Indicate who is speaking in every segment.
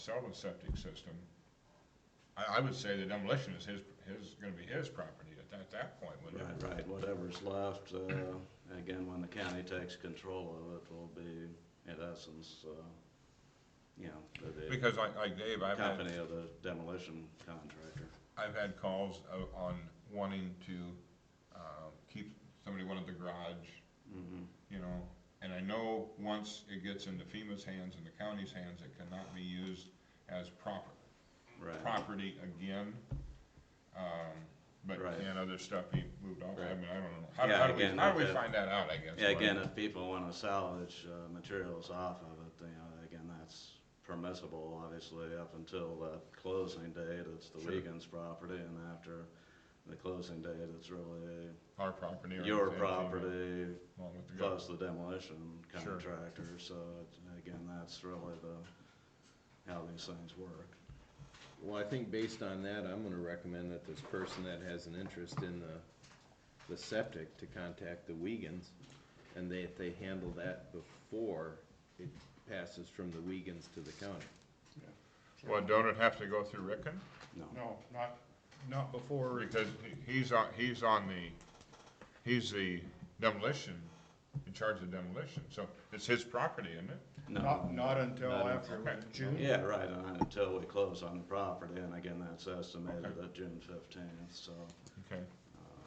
Speaker 1: sell the septic system, I, I would say the demolition is his, his, gonna be his property at that, that point, wouldn't it?
Speaker 2: Right, right, whatever's left, uh, again, when the county takes control of it, will be, in essence, uh, you know, the-
Speaker 1: Because like, like Dave,
Speaker 2: the
Speaker 1: I've had,
Speaker 2: company of the demolition contractor.
Speaker 1: I've had calls o- on wanting to, um, keep, somebody wanted the garage,
Speaker 2: Mhm.
Speaker 1: you know, and I know once it gets into FEMA's hands and the county's hands, it cannot be used as proper,
Speaker 2: Right,
Speaker 1: property again. Um, but
Speaker 2: Right.
Speaker 1: can other stuff be moved off? I
Speaker 2: Right.
Speaker 1: mean, I don't know. How,
Speaker 2: Yeah,
Speaker 1: how do we,
Speaker 2: again,
Speaker 1: how do we
Speaker 2: that-
Speaker 1: find that out, I guess?
Speaker 2: yeah,
Speaker 1: what-
Speaker 2: again, if people wanna salvage, uh, materials off of it, you know, again, that's permissible, obviously, up until the closing date, it's the
Speaker 1: Sure.
Speaker 2: Wiegand's property, and after the closing date, it's really
Speaker 1: Our property. or
Speaker 2: your
Speaker 1: anything,
Speaker 2: property,
Speaker 1: Along with the
Speaker 2: plus the demolition
Speaker 1: Sure.
Speaker 2: contractor, so it- again, that's really the, how these things work.
Speaker 3: Well, I think based on that, I'm gonna recommend that this person that has an interest in the, the septic to contact the Wiegans, and they, if they handle that before it passes from the Wiegans to the county.
Speaker 1: Well, don't it have to go through Rickon?
Speaker 2: No,
Speaker 4: No, not, not before,
Speaker 1: Because he- he's on, he's on the, he's the demolition, in charge of demolition, so it's his property, isn't it?
Speaker 4: not,
Speaker 2: no.
Speaker 4: not until
Speaker 2: Not
Speaker 4: after
Speaker 1: until-
Speaker 4: was it June.
Speaker 2: Yeah, right, and until we close on the property, and again, that's estimated at June fifteenth, so.
Speaker 1: Okay.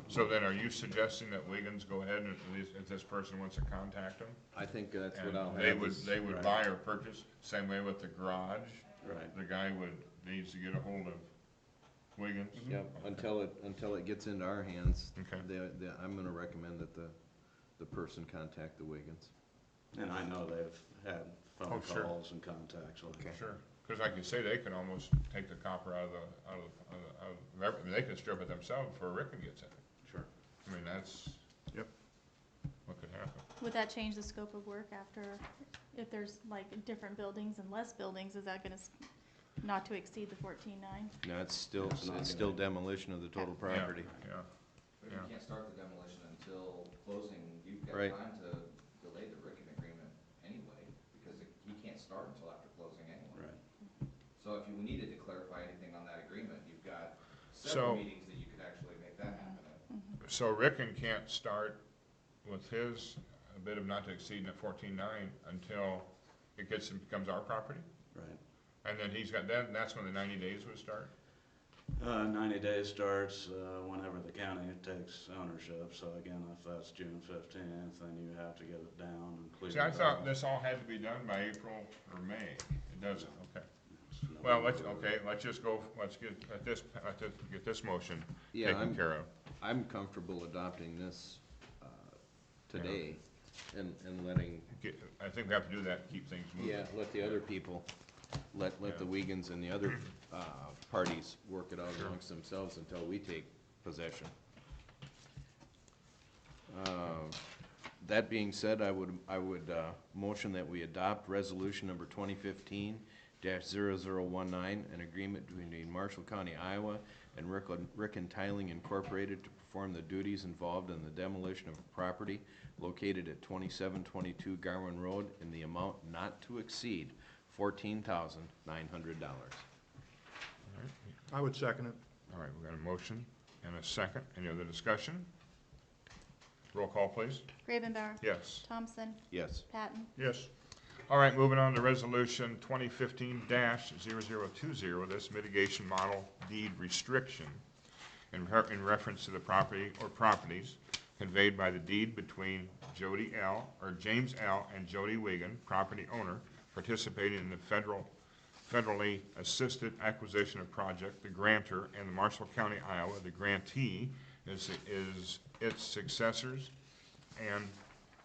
Speaker 1: So then are you suggesting that Wiggins go ahead and at least, if this person wants to contact him?
Speaker 3: I think that's what
Speaker 1: And
Speaker 3: I'll
Speaker 1: they
Speaker 3: have
Speaker 1: would,
Speaker 3: is-
Speaker 1: they would
Speaker 2: right.
Speaker 1: buy or purchase, same way with the garage,
Speaker 2: Right,
Speaker 1: the guy would, needs to get a hold of Wiggins?
Speaker 3: Yep,
Speaker 1: Okay.
Speaker 3: until it, until it gets into our hands,
Speaker 1: Okay.
Speaker 3: they, they, I'm gonna recommend that the, the person contact the Wiegans.
Speaker 2: and I know they've had phone
Speaker 1: Oh, sure.
Speaker 2: calls and contacts like that.
Speaker 1: Sure, because like you say, they can almost take the copper out of the, out of, out of- out of, everything. they can strip it themselves before Rickon gets it.
Speaker 2: Sure.
Speaker 1: I mean, that's.
Speaker 4: Yep.
Speaker 1: What could happen.
Speaker 5: Would that change the scope of work after, if there's like different buildings and less buildings, is that gonna, s- not to exceed the fourteen-nine?
Speaker 3: No, it's still,
Speaker 2: That's not
Speaker 3: it's still
Speaker 2: gonna-
Speaker 3: demolition of the total
Speaker 1: Yeah,
Speaker 3: property.
Speaker 1: Yeah,
Speaker 6: But you
Speaker 1: Yeah.
Speaker 6: can't start the demolition until closing, you've got
Speaker 3: Right.
Speaker 6: time to delay the Rickon agreement anyway, because it- he can't start until after closing anyway.
Speaker 2: Right,
Speaker 6: So if you needed to clarify anything on that agreement, you've got
Speaker 1: So-
Speaker 6: several meetings that you could actually make that happen at.
Speaker 1: so Rickon can't start with his bid of not to exceed the fourteen-nine until it gets, and becomes our property?
Speaker 2: right.
Speaker 1: And then he's got, then, that's when the ninety days would start?
Speaker 2: Uh, ninety days starts, uh, whenever the county takes ownership, so again, if that's June fifteenth, then you have to get it down and clear.
Speaker 1: See, I
Speaker 2: it
Speaker 1: thought
Speaker 2: out.
Speaker 1: this all had to be done by April or May, it doesn't, okay.
Speaker 2: It's no-
Speaker 1: Well, let's, okay, let's just go, let's get, let this, let this, get this motion
Speaker 3: Yeah,
Speaker 1: taken
Speaker 3: I'm-
Speaker 1: care of.
Speaker 3: I'm comfortable adopting this uh, today and, and letting,
Speaker 1: Get- I think we have to do that, keep things moving.
Speaker 3: yeah, let the other people, let, let the Wiegans and the other uh, parties work it out amongst themselves until we take possession. Uh, That being said, I would, I would uh, motion that we adopt resolution number twenty fifteen dash zero zero one nine, an agreement between Marshall County, Iowa and Rick, Rick and Tiling Incorporated to perform the duties involved in the demolition of property located at twenty-seven twenty-two Garwin Road in the amount not to exceed fourteen thousand nine hundred dollars.
Speaker 4: I would second it.
Speaker 1: All right, we got a motion and a second. Any other discussion? Roll call, please.
Speaker 5: Gravenbauer?
Speaker 1: Yes.
Speaker 5: Thompson?
Speaker 3: Yes.
Speaker 5: Patton?
Speaker 1: Yes. All right, moving on to resolution twenty fifteen 20 this mitigation model deed restriction in re- in reference to the property or properties conveyed by the deed between Jody L., or James L. and Jody Wigan, property owner, participating in the federal, federally assisted acquisition of project, the grantor, and the Marshall County, Iowa, the grantee is, is its successors and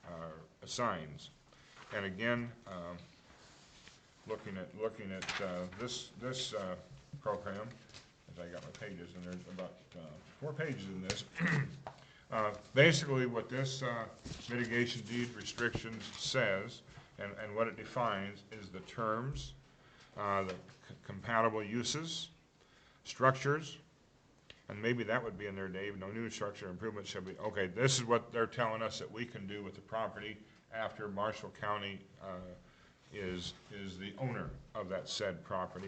Speaker 1: uh, assigns. And again, um, looking at, looking at uh, this, this uh, program, as I got my pages, and there's about uh, four pages in this. Uh, Basically, what this uh, mitigation deed restrictions says, and, and what it defines, is the terms, uh, the c- compatible uses, structures, and maybe that would be in there, Dave, no new structure improvements shall be, okay, this is what they're telling us that we can do with the property after Marshall County, uh, is, is the owner of that said property